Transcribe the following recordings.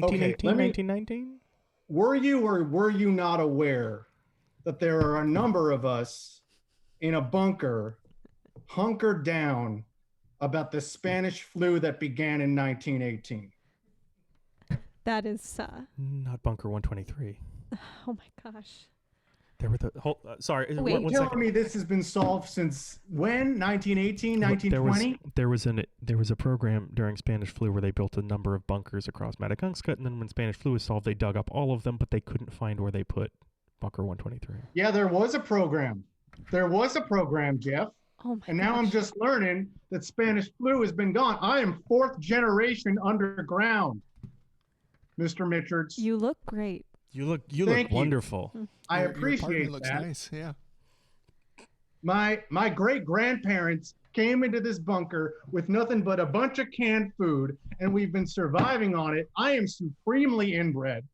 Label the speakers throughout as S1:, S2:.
S1: 1918,
S2: let me-
S1: 1919?
S2: were you or were you not aware that there are a number of us in a bunker hunkered down about the Spanish flu that began in 1918?
S3: That is, uh,
S1: Not Bunker 123.
S3: oh my gosh.
S1: There were the whole. Uh, sorry, uh,
S3: Wait.
S1: one, one
S2: Tell
S1: second.
S2: me this has been solved since when? 1918,
S1: There was
S2: 1920?
S1: there was an there was a program during Spanish flu where they built a number of bunkers across Madagungscut, and then when Spanish flu was solved, they dug up all of them, but they couldn't find where they put Bunker 123.
S2: Yeah, there was a program. There was a program, Jeff.
S3: Oh my
S2: And now I'm
S3: gosh.
S2: just learning that Spanish flu has been gone. I am fourth generation underground, Mr. Mitchards.
S3: You look great.
S1: You look you
S2: Thank
S1: look
S2: you.
S1: wonderful.
S2: I
S4: Your- your apartment
S2: appreciate
S4: looks
S2: that.
S4: nice. Yeah.
S2: My my great grandparents came into this bunker with nothing but a bunch of canned food, and we've been surviving on it. I am supremely inbred,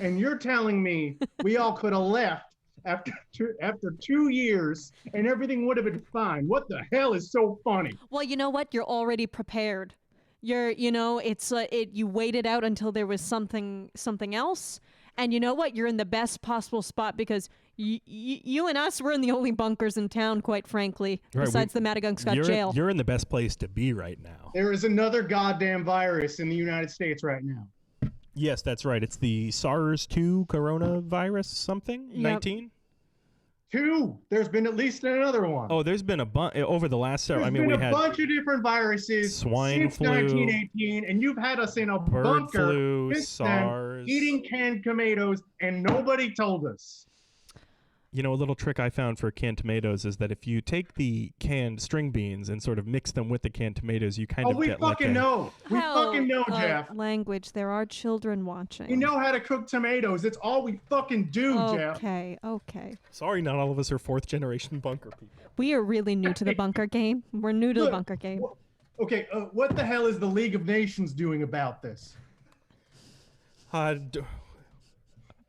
S2: and you're telling me we all could have left after two, after two years, and everything would have been fine. What the hell is so funny?
S3: Well, you know what? You're already prepared. You're, you know, it's uh, it. You waited out until there was something, something else, and you know what? You're in the best possible spot because y- y- you and us were in the only bunkers in town, quite frankly,
S1: Right, we-
S3: besides the Madagungscut
S1: you're,
S3: jail.
S1: you're in the best place to be right now.
S2: There is another goddamn virus in the United States right now.
S1: Yes, that's right. It's the SARS-2 coronavirus something
S3: Yep.
S1: 19.
S2: Two. There's been at least another one.
S1: Oh, there's been a bunch over the last several.
S2: There's
S1: I mean,
S2: been
S1: we
S2: a
S1: had
S2: bunch of different viruses
S1: swine
S2: since
S1: flu,
S2: 1918, and you've had us in a
S1: bird
S2: bunker
S1: flu,
S2: since then,
S1: SARS.
S2: eating canned tomatoes, and nobody told us.
S1: You know, a little trick I found for canned tomatoes is that if you take the canned string beans and sort of mix them with the canned tomatoes, you kind
S2: Oh,
S1: of
S2: we
S1: get
S2: fucking
S1: like a-
S2: know. We
S3: How,
S2: fucking know,
S3: uh,
S2: Jeff.
S3: Language. There are children watching.
S2: We know how to cook tomatoes. It's all we fucking do, Jeff.
S3: Okay, okay.
S1: Sorry, not all of us are fourth generation bunker people.
S3: We are really new to the bunker game. We're new to the
S2: Look,
S3: bunker game.
S2: wh- Okay, uh, what the hell is the League of Nations doing about this?
S1: Uh, d-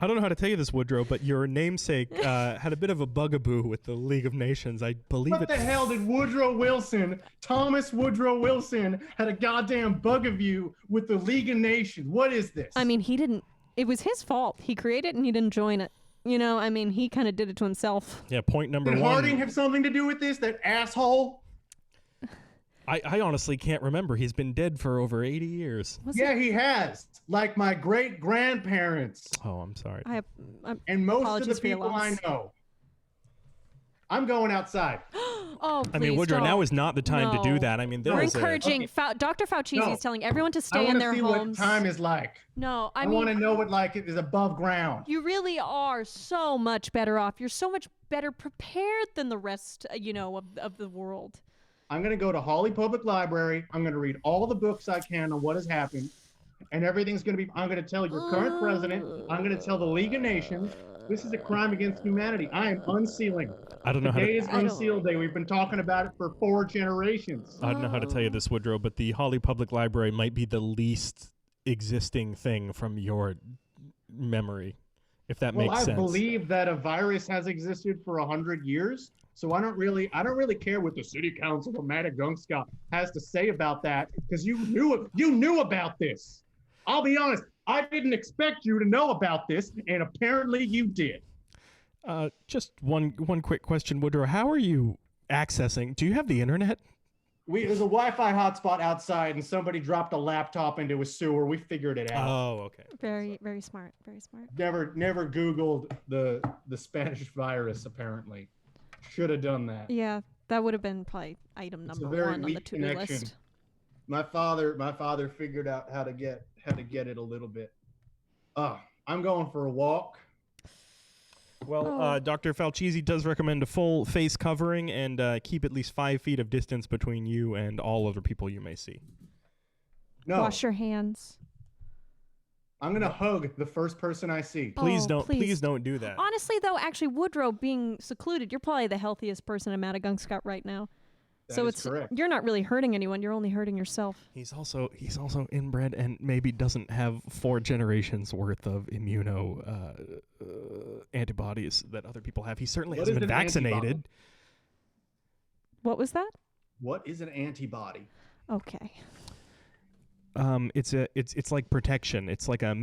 S1: I don't know how to tell you this, Woodrow, but your namesake uh, had a bit of a bugaboo with the League of Nations. I believe
S2: What
S1: it.
S2: the hell did Woodrow Wilson, Thomas Woodrow Wilson, had a goddamn bug of you with the League of Nations? What is this?
S3: I mean, he didn't. It was his fault. He created it and he didn't join it. You know, I mean, he kind of did it to himself.
S1: Yeah, point number
S2: did
S1: one.
S2: Harding have something to do with this? That asshole?
S1: I, I honestly can't remember. He's been dead for over 80 years.
S3: Was
S2: Yeah,
S3: it?
S2: he has. Like my great grandparents
S1: Oh, I'm sorry.
S3: I, I,
S2: and most of
S3: Apologies
S2: the
S3: for your
S2: people I
S3: loss.
S2: know. I'm going outside.
S3: oh,
S1: I mean,
S3: please
S1: Woodrow,
S3: don't.
S1: now is not the time to do
S3: No.
S1: that. I mean, there
S3: We're
S1: was a-
S3: encouraging
S2: Okay.
S3: Fau- Dr. Fauci
S2: No.
S3: is telling everyone to
S2: I
S3: stay in
S2: want to
S3: their
S2: see
S3: homes.
S2: what time is like.
S3: no, I,
S2: I, want to
S3: mean,
S2: know what like it is above ground.
S3: you really are so much better off. You're so much better prepared than the rest, uh, you know, of, of the world.
S2: I'm going to go to Holly Public Library. I'm going to read all the books I can on what has happened. And everything's going to be. I'm going to tell your current president. I'm going to tell the League of Nations. This is a crime against humanity. I am unsealing.
S1: I don't know how
S2: Today
S1: to.
S2: is
S3: I don't-
S2: Unseal Day. We've been talking about it for four generations.
S1: I don't know how to
S2: Oh.
S1: tell you this, Woodrow, but the Holly Public Library might be the least existing thing from your memory, if that
S2: well,
S1: makes
S2: I
S1: sense.
S2: believe that a virus has existed for a hundred years, so I don't really, I don't really care what the city council of Madagungscut has to say about that, because you knew it, you knew about this. I'll be honest, I didn't expect you to know about this, and apparently you did.
S1: Uh, just one one quick question, Woodrow. How are you accessing? Do you have the internet?
S2: We there's a Wi-Fi hotspot outside, and somebody dropped a laptop into a sewer. We figured it out.
S1: Oh, okay.
S3: Very, very smart. Very smart.
S2: never, never Googled the the Spanish virus. Apparently, should have done that.
S3: Yeah, that would have been probably item
S2: It's a
S3: number
S2: very
S3: one on the
S2: weak
S3: to-do
S2: connection.
S3: list.
S2: my father my father figured out how to get how to get it a little bit uh i'm going for a walk
S1: Well,
S3: Oh.
S1: uh, Dr. Falchisi does recommend a full face covering and uh, keep at least five feet of distance between you and all other people you may see.
S2: no
S3: Wash your hands.
S2: i'm gonna hug the first person i see
S1: Please
S3: Oh,
S1: don't. Please.
S3: please.
S1: don't do that.
S3: Honestly, though, actually, Woodrow being secluded, you're probably the healthiest person in Madagungscut right now.
S2: That
S3: so
S2: is
S3: it's
S2: correct
S3: you're not really hurting anyone. You're only hurting yourself.
S1: He's also he's also inbred and maybe doesn't have four generations worth of immuno uh, uh, antibodies that other people have. He certainly
S2: What
S1: hasn't
S2: is
S1: been
S2: an antibody?
S1: vaccinated.
S3: What was that?
S2: what is an antibody
S3: Okay.
S1: um, it's a it's it's like protection. It's like a